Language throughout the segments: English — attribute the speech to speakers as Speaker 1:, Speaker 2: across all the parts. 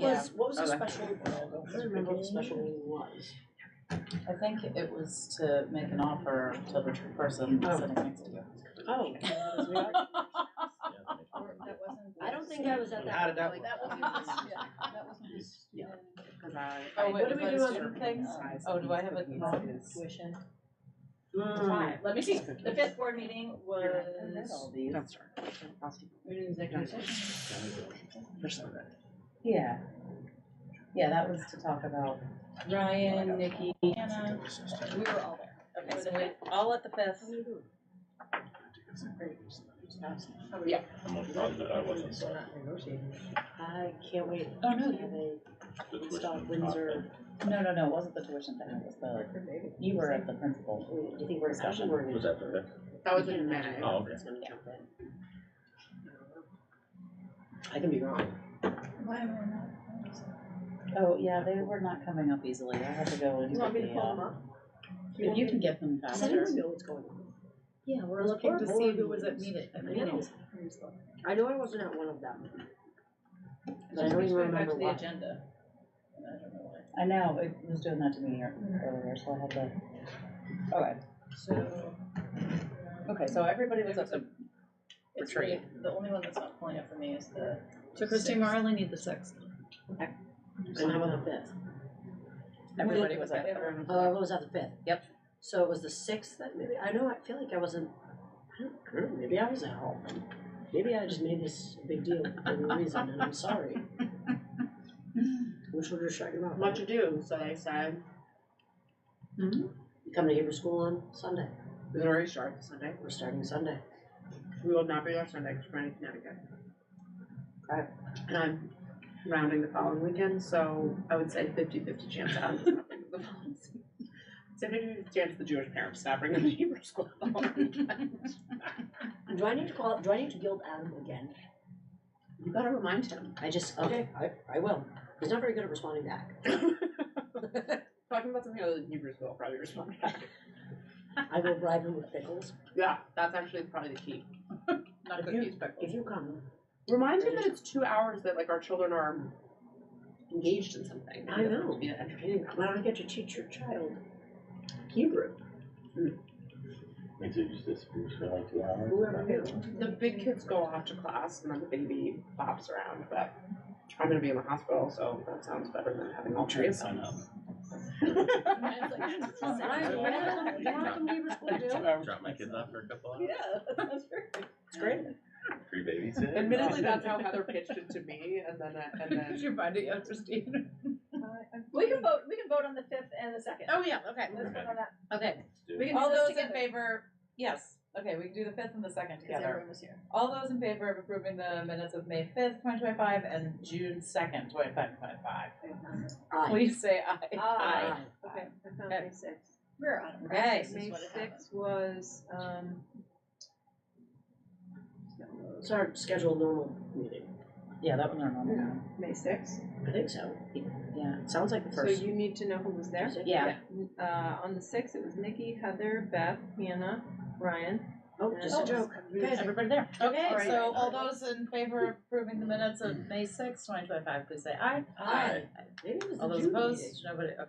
Speaker 1: Yeah.
Speaker 2: was, what was the
Speaker 1: Okay.
Speaker 2: special, I don't remember what the special meeting was.
Speaker 1: I think it was to make an offer to the person sitting next to you.
Speaker 2: Oh.
Speaker 3: Oh,
Speaker 2: I don't think I was at that.
Speaker 4: How did that
Speaker 2: like,
Speaker 4: work?
Speaker 2: Yeah.
Speaker 1: Cause I.
Speaker 2: Oh, wait, what do we do on
Speaker 1: other
Speaker 2: things?
Speaker 1: Oh, do I have a?
Speaker 3: Tuition.
Speaker 1: Hmm.
Speaker 2: Mm.
Speaker 3: Five, let me see, the fifth board meeting was.
Speaker 1: That's
Speaker 3: We did executive session.
Speaker 1: Yeah. Yeah, that was to talk about.
Speaker 3: Ryan, Nikki, Hannah, we were all there.
Speaker 1: Okay, so we all at the fifth.
Speaker 5: I'm not, I wasn't sorry.
Speaker 2: I can't wait.
Speaker 1: Oh, no,
Speaker 2: to
Speaker 1: you-
Speaker 2: have a-
Speaker 5: The
Speaker 2: Stop
Speaker 5: tuition is
Speaker 2: Windsor.
Speaker 1: No, no, no, it wasn't the tuition thing, it was the, you were at the principal.
Speaker 2: wait, You think we're discussion? We're
Speaker 5: not-
Speaker 2: gonna-
Speaker 5: Was that the,
Speaker 6: That was in May.
Speaker 5: Oh, okay.
Speaker 2: It's gonna jump in. I can be wrong.
Speaker 1: Oh, yeah, they were not coming up easily, I had to go and. pick the, uh,
Speaker 6: up?
Speaker 1: If you can get them
Speaker 2: Does
Speaker 1: faster.
Speaker 2: anyone know what's going on?
Speaker 3: Yeah, we're
Speaker 2: looking to see who was at
Speaker 3: meeting.
Speaker 2: the meetings. I know I wasn't at one of them. But I don't even remember
Speaker 3: Back
Speaker 2: what.
Speaker 3: to the agenda.
Speaker 1: I know, Mm-hmm. it was doing that to me ear- earlier, so I had to. Okay,
Speaker 3: So,
Speaker 1: okay, so everybody was up to.
Speaker 3: it's
Speaker 1: Retreat.
Speaker 3: really, the only one that's not pulling up for me is the.
Speaker 7: So Christine,
Speaker 3: sixth.
Speaker 7: we're only need the sixth.
Speaker 2: And how about the fifth?
Speaker 1: Everybody was at.
Speaker 3: Everyone.
Speaker 2: Oh, I was at the fifth.
Speaker 1: Yep.
Speaker 2: So it was the sixth that maybe, I know, I feel like I wasn't, I don't know, maybe I was at home. Maybe I just made this a big deal for no reason, and I'm sorry. Which one are talking about?
Speaker 6: Much ado, so they said.
Speaker 2: You Come to Hebrew school on Sunday.
Speaker 6: It already started Sunday.
Speaker 2: We're starting Sunday.
Speaker 6: We will not be there Sunday because we're in Connecticut.
Speaker 2: Okay.
Speaker 6: And I'm rounding the following weekend, so I would say 50 50 chance that I'm not bringing the following season. It's a 50 50 chance the Jewish parents not bringing the Hebrew school. the following weekend.
Speaker 2: Do I need to call, do I need to guild Adam again?
Speaker 6: you gotta remind him.
Speaker 2: I just, okay, I, I will. He's not very good at responding back.
Speaker 6: Talking about something other than Hebrew school, probably respond back.
Speaker 2: I will bribe him with pickles.
Speaker 6: Yeah, that's actually probably the key.
Speaker 3: Not a
Speaker 6: You-
Speaker 3: good news pickle.
Speaker 2: If you come,
Speaker 6: Remind him that it's two hours that like our children are engaged in something.
Speaker 2: I know.
Speaker 6: Yeah, entertaining. them.
Speaker 2: why don't I get to teach your child Hebrew?
Speaker 5: means it just disappears for like two hours?
Speaker 2: Whoever knew.
Speaker 6: The big kids go off to class and then the baby bops around, but I'm gonna be in the hospital, so that sounds better than having all trees.
Speaker 5: I know.
Speaker 3: Mine's like-
Speaker 2: Ryan, what happened? Oh, You wanna come to Hebrew school too?
Speaker 5: Drop drop my kids off for a couple hours,
Speaker 3: that's perfect.
Speaker 2: It's great.
Speaker 5: free babysit.
Speaker 6: Admittedly, that's how Heather pitched it to me, and then, I- and
Speaker 7: Did
Speaker 6: then,
Speaker 7: you find it yet, Christine?
Speaker 3: We can vote, we can vote on the fifth and the second.
Speaker 7: Oh, yeah, okay.
Speaker 3: Let's vote on that.
Speaker 1: Okay,
Speaker 3: We can
Speaker 1: all
Speaker 3: do this
Speaker 1: those in
Speaker 3: together,
Speaker 1: favor, yes, okay, we can do the fifth and the second
Speaker 3: Because
Speaker 1: together.
Speaker 3: everyone was here.
Speaker 1: All those in favor of approving the minutes of May fifth, twenty twenty-five, and June second, twenty twenty-five,
Speaker 2: Aye.
Speaker 1: please say aye.
Speaker 3: Aye.
Speaker 2: Aye.
Speaker 1: Okay.
Speaker 8: I found
Speaker 1: Okay.
Speaker 8: May sixth.
Speaker 3: We're on. it, right?
Speaker 1: Okay.
Speaker 3: This is
Speaker 8: May
Speaker 3: what it happened.
Speaker 8: sixth was, um,
Speaker 2: It's our scheduled normal meeting.
Speaker 1: Yeah, that was our normal one.
Speaker 8: May sixth,
Speaker 2: I think so.
Speaker 1: Yeah.
Speaker 2: It sounds like the
Speaker 8: so
Speaker 2: first.
Speaker 8: you need to know who was there.
Speaker 1: Yeah.
Speaker 8: Uh, on the sixth, it was Nikki, Heather, Beth, Hannah, Ryan.
Speaker 2: Oh, just a
Speaker 8: Oh.
Speaker 2: joke.
Speaker 1: Everybody there. Okay,
Speaker 8: Alright.
Speaker 1: so all those in favor of approving the minutes of May sixth, twenty twenty-five, please say aye.
Speaker 2: Aye. Maybe it was
Speaker 1: All
Speaker 2: the
Speaker 1: those
Speaker 2: June
Speaker 1: opposed, nobody, okay.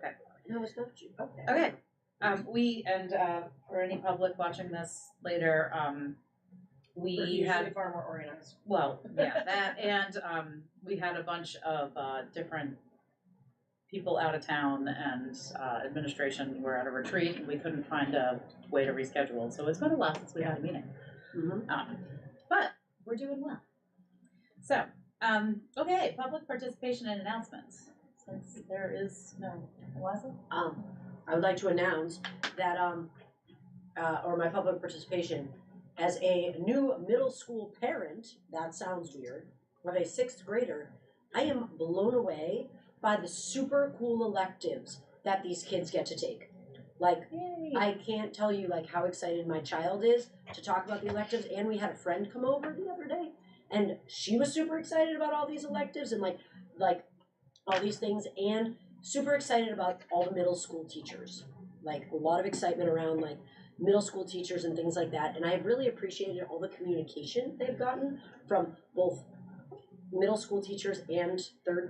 Speaker 2: meeting. No, it's not June. Okay.
Speaker 1: Okay, um, we, and, uh, for any public watching this later, um,
Speaker 3: We're
Speaker 1: we had
Speaker 3: usually far more organized.
Speaker 1: Well, yeah, that and um, we had a bunch of uh, different people out of town and uh, administration were at a retreat and we couldn't find a way to reschedule. So it's been a while since we had a meeting.
Speaker 2: Mhm.
Speaker 1: Um, but we're doing well. So, um, okay, public participation and announcements. Since there is no Eliza?
Speaker 2: Um, I would like to announce that, um, uh, or my public participation, as a new middle school parent, that sounds weird, of a sixth grader, I am blown away by the super cool electives that these kids get to take. Like,
Speaker 1: Yay.
Speaker 2: I can't tell you like how excited my child is to talk about the electives. And we had a friend come over the other day, and she was super excited about all these electives and like like all these things, and super excited about all the middle school teachers. Like a lot of excitement around like middle school teachers and things like that. And I've really appreciated all the communication they've gotten from both middle school teachers and third